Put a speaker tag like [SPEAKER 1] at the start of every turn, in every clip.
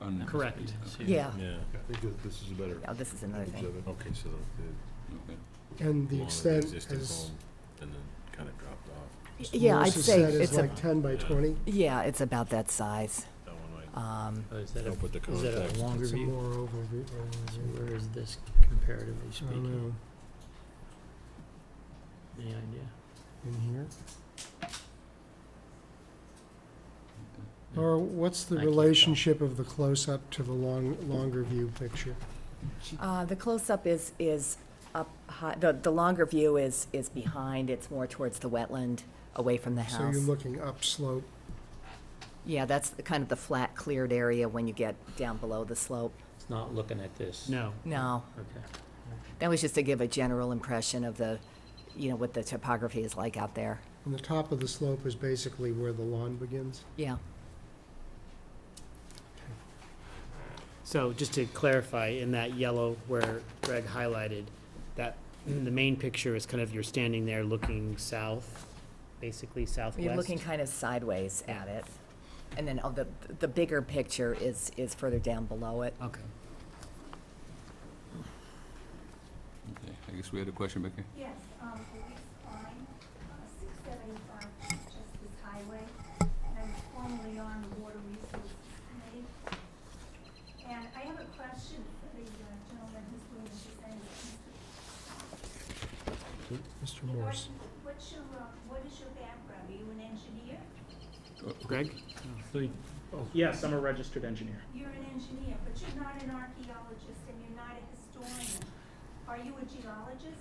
[SPEAKER 1] on.
[SPEAKER 2] Correct.
[SPEAKER 3] Yeah,
[SPEAKER 4] Yeah,
[SPEAKER 5] I think that this is a better
[SPEAKER 3] yeah, Oh, this is another
[SPEAKER 5] image
[SPEAKER 3] thing.
[SPEAKER 5] of it.
[SPEAKER 4] okay, so the
[SPEAKER 1] Okay.
[SPEAKER 6] And the
[SPEAKER 4] long of
[SPEAKER 6] extent
[SPEAKER 4] existing
[SPEAKER 6] is,
[SPEAKER 4] home and then kind of dropped off.
[SPEAKER 3] Yeah, I'd
[SPEAKER 6] Melissa
[SPEAKER 3] say
[SPEAKER 6] said is
[SPEAKER 3] it's a,
[SPEAKER 6] like ten by twenty.
[SPEAKER 3] yeah, it's about that size.
[SPEAKER 4] That one might
[SPEAKER 3] Um,
[SPEAKER 2] Oh, Is that
[SPEAKER 4] help
[SPEAKER 2] a,
[SPEAKER 4] with the
[SPEAKER 2] is that
[SPEAKER 4] context.
[SPEAKER 2] a longer
[SPEAKER 6] It's a
[SPEAKER 2] view?
[SPEAKER 6] more over, view,
[SPEAKER 2] So
[SPEAKER 6] over view.
[SPEAKER 2] where is this comparatively
[SPEAKER 6] I don't
[SPEAKER 2] speaking?
[SPEAKER 6] know,
[SPEAKER 2] Any idea?
[SPEAKER 6] in here?
[SPEAKER 2] Yeah.
[SPEAKER 6] Or what's the
[SPEAKER 2] I can't tell.
[SPEAKER 6] relationship of the close-up to the long, longer view picture?
[SPEAKER 3] uh, the close-up is, is up high, the, the longer view is, is behind, it's more towards the wetland, away from the
[SPEAKER 6] So you're
[SPEAKER 3] house.
[SPEAKER 6] looking upslope.
[SPEAKER 3] Yeah, that's the- kind of the flat cleared area when you get down below the slope.
[SPEAKER 2] It's not looking at this?
[SPEAKER 7] No.
[SPEAKER 3] No,
[SPEAKER 2] Okay.
[SPEAKER 3] that was just to give a general impression of the, you know, what the topography is like out there.
[SPEAKER 6] And the top of the slope is basically where the lawn begins.
[SPEAKER 3] Yeah,
[SPEAKER 7] So just to clarify, in that yellow where Greg highlighted, that, the main picture is kind of you're standing there looking south, basically southwest.
[SPEAKER 3] you're looking kind of sideways at it. And then, oh, the, the bigger picture is, is further down below it.
[SPEAKER 7] Okay.
[SPEAKER 1] Okay, I guess we had a question, Becky?
[SPEAKER 8] Yes, um, the next line, uh, six seventy-five Justice Highway, and I'm formerly on the Water Resources Committee. And I have a question for the uh, gentleman who's doing this, his name is
[SPEAKER 6] Mr.
[SPEAKER 8] Mr.
[SPEAKER 6] Morse.
[SPEAKER 8] Norton. What's your, uh, what is your background? Are you an engineer?
[SPEAKER 7] Greg?
[SPEAKER 9] Yes, I'm a registered engineer.
[SPEAKER 8] You're an engineer, but you're not an archaeologist and you're not a historian. Are you a geologist?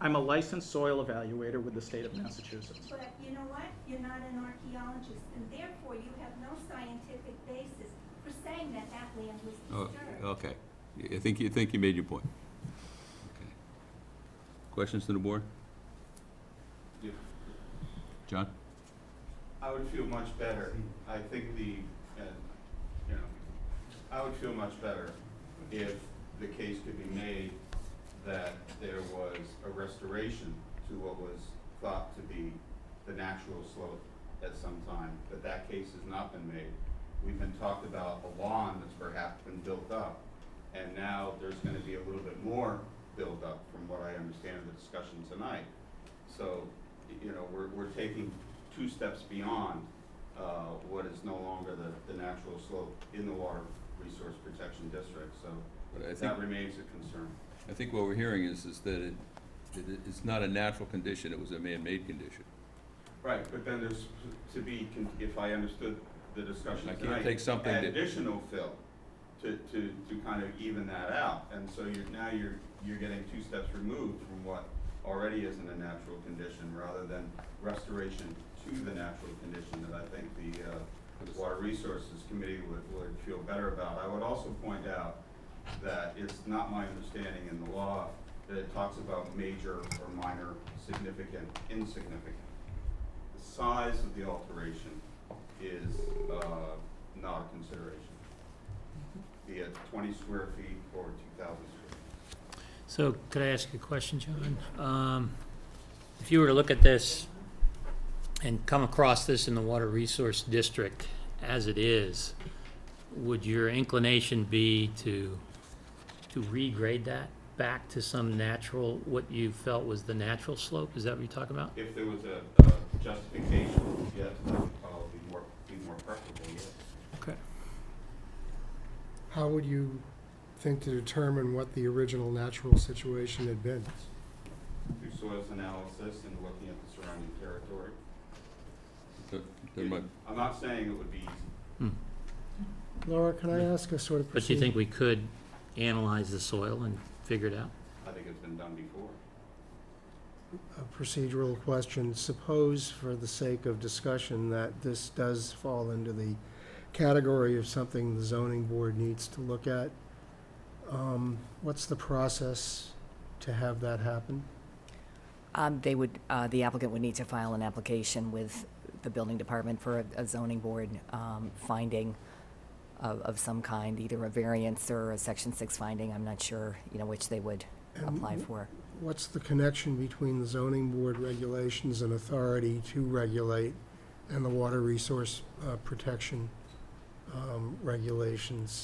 [SPEAKER 9] I'm a licensed soil evaluator with the state of Massachusetts.
[SPEAKER 8] But you know what? You're not an archaeologist, and therefore you have no scientific basis for saying that that land was
[SPEAKER 1] Oh,
[SPEAKER 8] disturbed.
[SPEAKER 1] Okay, Y- I think, you think you made your point. Okay. Questions to the board?
[SPEAKER 10] Yeah.
[SPEAKER 1] John?
[SPEAKER 10] I would feel much better. I think the, uh, you know, I would feel much better if the case could be made that there was a restoration to what was thought to be the natural slope at some time, but that case has not been made. We've been talked about a lawn that's perhaps been built up, and now there's gonna be a little bit more built up from what I understand of the discussion tonight. So, y- you know, we're, we're taking two steps beyond, uh, what is no longer the, the natural slope in the Water Resource Protection District, so
[SPEAKER 1] But I think,
[SPEAKER 10] that remains a concern.
[SPEAKER 1] I think what we're hearing is, is that it, it- it's not a natural condition, it was a man-made condition.
[SPEAKER 10] Right, but then there's to be, con- if I understood the discussion
[SPEAKER 1] I
[SPEAKER 10] tonight.
[SPEAKER 1] can't take something
[SPEAKER 10] add
[SPEAKER 1] that-
[SPEAKER 10] Additional fill to, to, to kind of even that out. And so you're, now you're, you're getting two steps removed from what already isn't a natural condition, rather than restoration to the natural condition that I think the, uh, Water Resources Committee would, would feel better about. I would also point out that it's not my understanding in the law that it talks about major or minor, significant, insignificant the size of the alteration is uh, not a consideration. Be it 20 square feet or 2,000 square feet.
[SPEAKER 2] So could I ask you a question, John? Um, If you were to look at this and come across this in the Water Resource District as it is, would your inclination be to, to regrade that back to some natural, what you felt was the natural slope? Is that what you're talking about?
[SPEAKER 10] If there was a a justification, yes, that would probably be more, be more preferable, yes.
[SPEAKER 2] Okay.
[SPEAKER 6] How would you think to determine what the original natural situation had been?
[SPEAKER 10] Through soils analysis and looking at the surrounding territory.
[SPEAKER 1] There- there might-
[SPEAKER 10] I'm not saying it would be easy.
[SPEAKER 6] Laura, can I ask a sort of
[SPEAKER 2] But you
[SPEAKER 6] procedure?
[SPEAKER 2] think we could analyze the soil and figure it out?
[SPEAKER 10] I think it's been done before.
[SPEAKER 6] a procedural question. Suppose, for the sake of discussion, that this does fall into the category of something the zoning board needs to look at. Um, What's the process to have that happen?
[SPEAKER 3] Um, they would, uh, the applicant would need to file an application with the building department for a- a zoning board, um, finding of, of some kind, either a variance or a section six finding, I'm not sure, you know, which they would apply
[SPEAKER 6] And
[SPEAKER 3] for.
[SPEAKER 6] What's the connection between the zoning board regulations and authority to regulate and the water resource uh, protection um, regulations